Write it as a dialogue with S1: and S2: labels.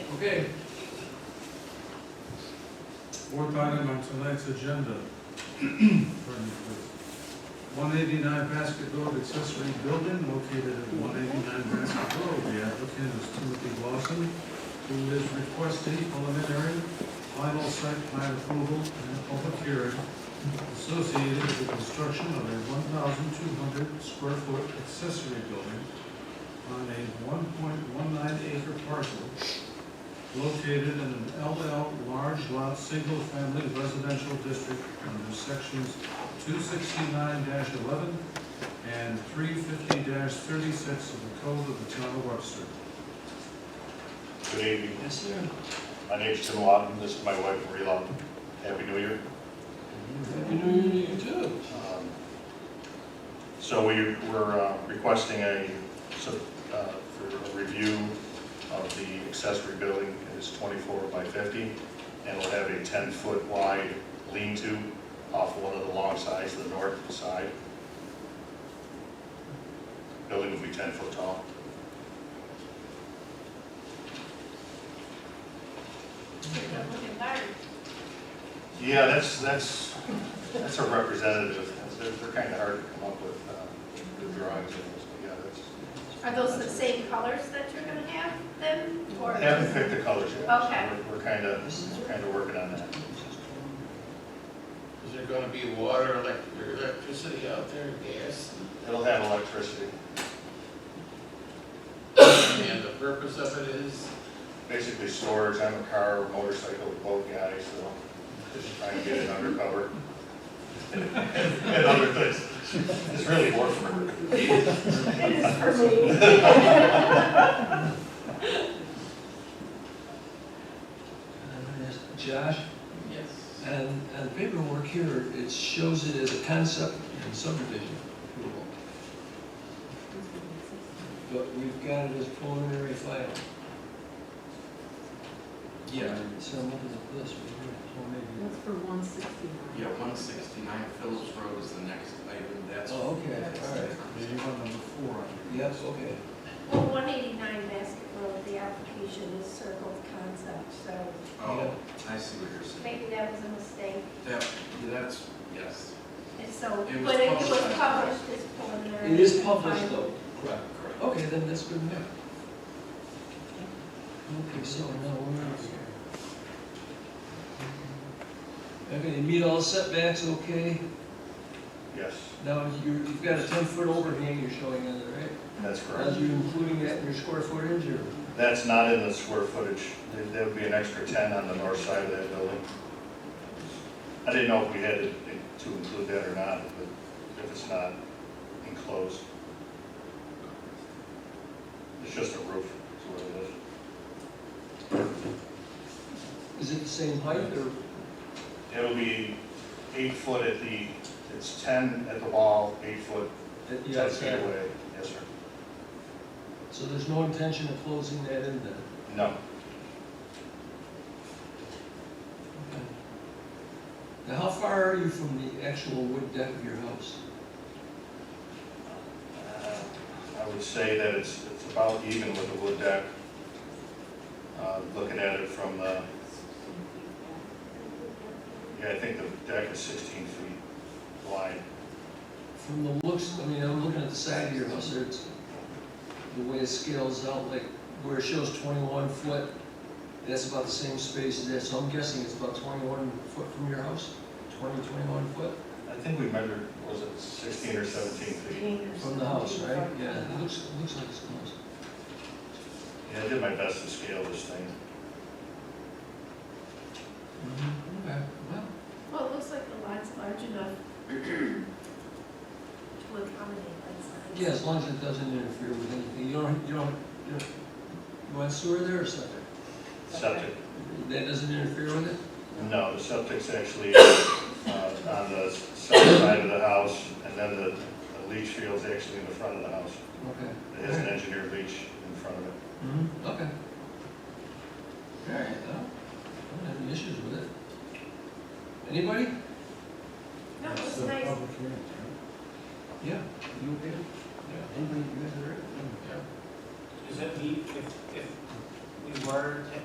S1: Okay,
S2: Fourth item on tonight's agenda. One eighty-nine Basket Road accessory building located at one eighty-nine Basket Road. The applicant is Timothy Lawson, who is requesting preliminary final site plan approval and a public hearing associated with the construction of a one thousand two hundred square foot accessory building on a one point one nine acre parcel located in an LL large lot, single-family residential district under sections two sixty-nine eleven and three fifty thirty-six of the Code of the Town of Webster.
S3: Good evening.
S1: yes, sir.
S3: My name's Tim Lawton. This is my wife, Marie Lawton. Happy New Year.
S1: Happy New Year to you too.
S3: Um, So we, we're uh, requesting a, so, uh, for a review of the accessory building. It's twenty-four by fifty, and it'll have a ten-foot wide lean-to off one of the long sides, the north side. Building will be ten foot tall.
S4: Looking tired.
S3: Yeah, that's, that's, that's a representative. They're, they're kind of hard to come up with, uh, the drawings and those, but yeah, that's.
S4: Are those the same colors that you're gonna have then, or?
S3: I Haven't picked the colors yet. so
S4: Okay.
S3: we're- We're kind of, we're kind of working on that.
S5: Is there gonna be water, elec- or electricity out there, gas?
S3: It'll have electricity.
S5: And the purpose of it is,
S3: Basically storage, I'm a car, motorcycle, boat guy, so just trying to get it undercover. And other things. It's really work for me.
S4: It is for me.
S1: Josh,
S5: yes,
S1: and, and paperwork here, it shows it as a concept and subdivision approval. But we've got it as preliminary final. Yeah. So I'm looking at this, right
S6: That's for one sixty-nine.
S7: Yeah, one sixty-nine Phillips Road is the next item, that's.
S1: here, or maybe. Oh, okay, all right.
S2: Maybe one number four on here.
S1: Yes, okay.
S4: Well, one eighty-nine Basket Road, the application is circled concept, so
S7: Oh, I see what you're saying.
S4: maybe that was a mistake.
S7: That, that's, yes,
S4: And so,
S7: It was
S4: but it was
S7: published.
S4: published as preliminary.
S1: It is published though.
S7: correct, correct.
S1: Okay, then that's good enough. Okay, so now we're out here. Okay, you meet all setbacks, okay?
S3: Yes,
S1: Now, you, you've got a ten-foot overhang you're showing in there, right?
S3: that's
S1: Are
S3: correct.
S1: you including that in your square footage or?
S3: That's not in the square footage. There- There would be an extra 10 on the north side of that building. I didn't know if we had to to include that or not, but if it's not enclosed. It's just a roof, is what it is.
S1: Is it the same height or?
S3: It'll be eight foot at the, it's 10 at the wall, eight foot, 10 feet away. Yes, sir.
S1: So there's no intention of closing that in then?
S3: No,
S1: Okay. Now, how far are you from the actual wood deck of your house?
S3: Uh, I would say that it's, it's about even with the wood deck. Uh, Looking at it from uh, the, yeah, I think the deck is 16 feet wide.
S1: From the looks, I mean, I'm looking at the side of your house, there, it's, the way it scales out, like, where it shows twenty-one foot, that's about the same space as that, so I'm guessing it's about twenty-one foot from your house? 20, 21 foot
S3: I think we measured, was it 16 or 17 feet?
S1: from the house, right? Yeah, it looks, it looks like it's close.
S3: Yeah, I did my best to scale this thing.
S1: Okay, well,
S4: Well, it looks like the lot's large enough to accommodate that size.
S1: yeah, as long as it doesn't interfere with anything, you don't, you don't, you don't, you want sewer there or something?
S3: Septic,
S1: That doesn't interfere with it?
S3: no, the septic's actually uh, on the south side of the house, and then the the leach field's actually in the front of the house.
S1: Okay.
S3: It has an engineered leach in front of it.
S1: Mhm, okay. All right, well, I don't have any issues with it. Anybody?
S4: No, it
S2: That's
S4: was
S2: the
S4: nice.
S2: public hearing, right?
S1: Yeah. You okay? Yeah. Anybody, you guys all right?
S5: yeah.
S8: Does that mean if, if we were to